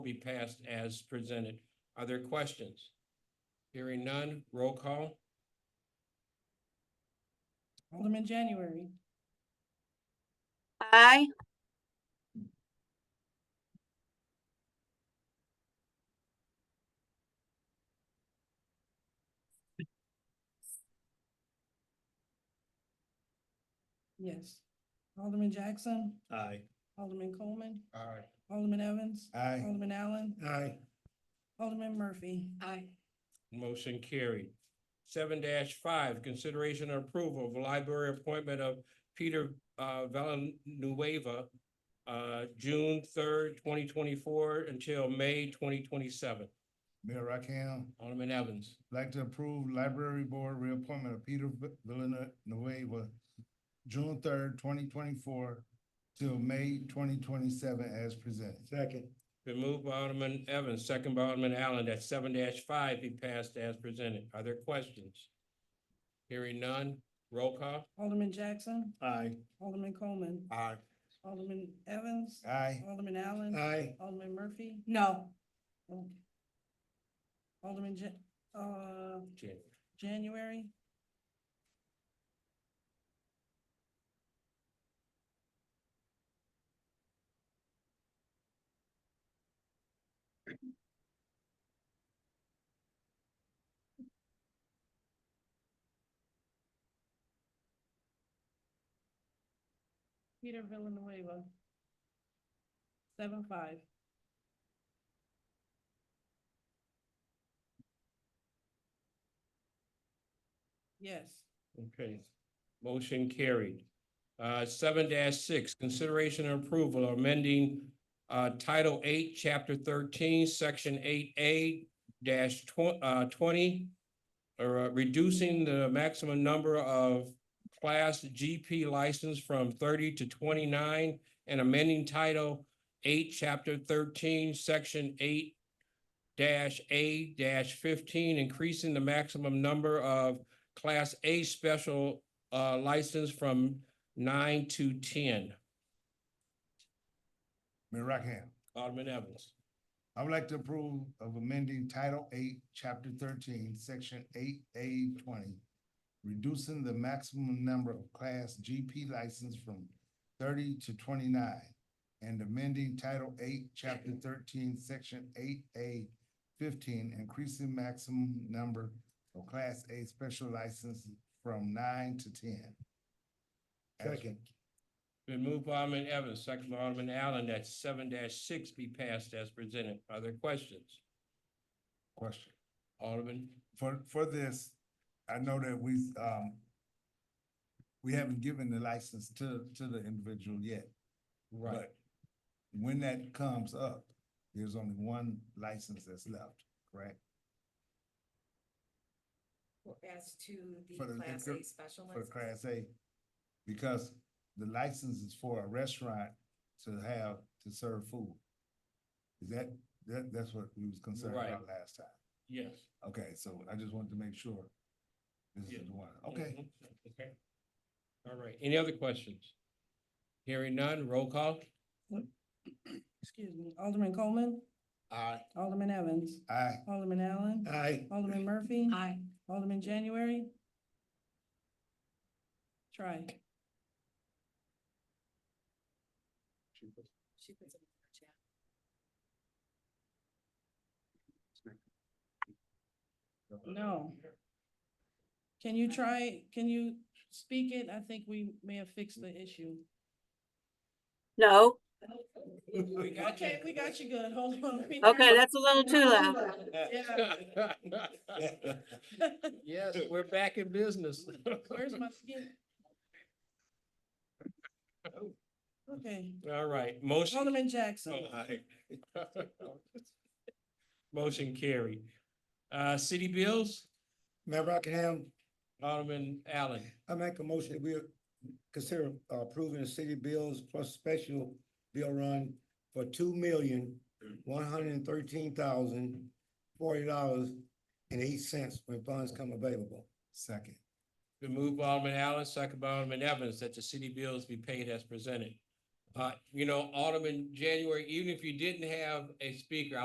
be passed as presented. Are there questions? Hearing none, roll call. Alderman January, Aye. yes. Alderman Jackson, Aye. Alderman Coleman, Aye. Alderman Evans, Aye. Alderman Allen, Aye. Alderman Murphy. Aye. Motion carried. Seven five, consideration and approval of library appointment of Peter uh Villanueva. Uh, June third, twenty twenty-four until May twenty twenty-seven. Mayor Rakim, Alderman Evans, like to approve library board reappointment of Peter Vi- Villanueva, June third, twenty twenty-four till May twenty twenty-seven as presented. Second. been moved by Alderman Evans, second by Alderman Allen, that seven five be passed as presented. Are there questions? Hearing none, roll call. Alderman Jackson, Aye. Alderman Coleman, Aye. Alderman Evans, Aye. Alderman Allen. Aye. Alderman Murphy. No. Alderman Ja- uh, January, Peter Villanueva. Seven five. Yes. Okay, motion carried. Uh, seven six, consideration and approval of amending uh, Title Eight, Chapter thirteen, Section eight A dash tw- uh, twenty, or uh, reducing the maximum number of Class GP license from thirty to twenty-nine and amending Title Eight, Chapter thirteen, Section eight dash A dash fifteen, increasing the maximum number of Class A special uh license from nine to ten. Mayor Rakim, Alderman Evans, I would like to approve of amending Title Eight, Chapter thirteen, Section eight A twenty, reducing the maximum number of Class GP license from thirty to twenty-nine, and amending Title Eight, Chapter thirteen, Section eight A fifteen, increasing maximum number of Class A special license from nine to ten. Second. been moved by Alderman Evans, second by Alderman Allen, that seven six be passed as presented. Are there questions? Question. Alderman, for, for this, I know that we, um, we haven't given the license to, to the individual yet. right, But when that comes up, there's only one license that's left, correct? As to For the the Class liquor- A special For the license? Class A. Because the license is for a restaurant to have, to serve food. Is that, that, that's what we was concerned Right. about last time. yes. Okay, so I just wanted to make sure. This Yeah. is the one, okay. Mhm. Okay. All right, any other questions? Hearing none, roll call. Excuse me, Alderman Coleman, Aye. Alderman Evans, Aye. Alderman Allen, Aye. Alderman Murphy, Aye. Alderman January. Try, She puts it in her chat. no. Can you try, can you speak it? I think we may have fixed the issue. No. We got you. Okay, we got you good, hold on. we- Okay, that's a little too loud. Yeah. Yes, we're back in business. Where's my skin? Okay, All right, motion. Alderman Jackson, Motion carried. Uh, city bills, Mayor Rockingham, Alderman Allen, I make a motion that we consider uh, approving the city bills plus special bill run for two million, one hundred and thirteen thousand, forty dollars and eight cents when funds come available. Second. been moved by Alderman Allen, second by Alderman Evans, that the city bills be paid as presented. Uh, you know, Alderman January, even if you didn't have a speaker,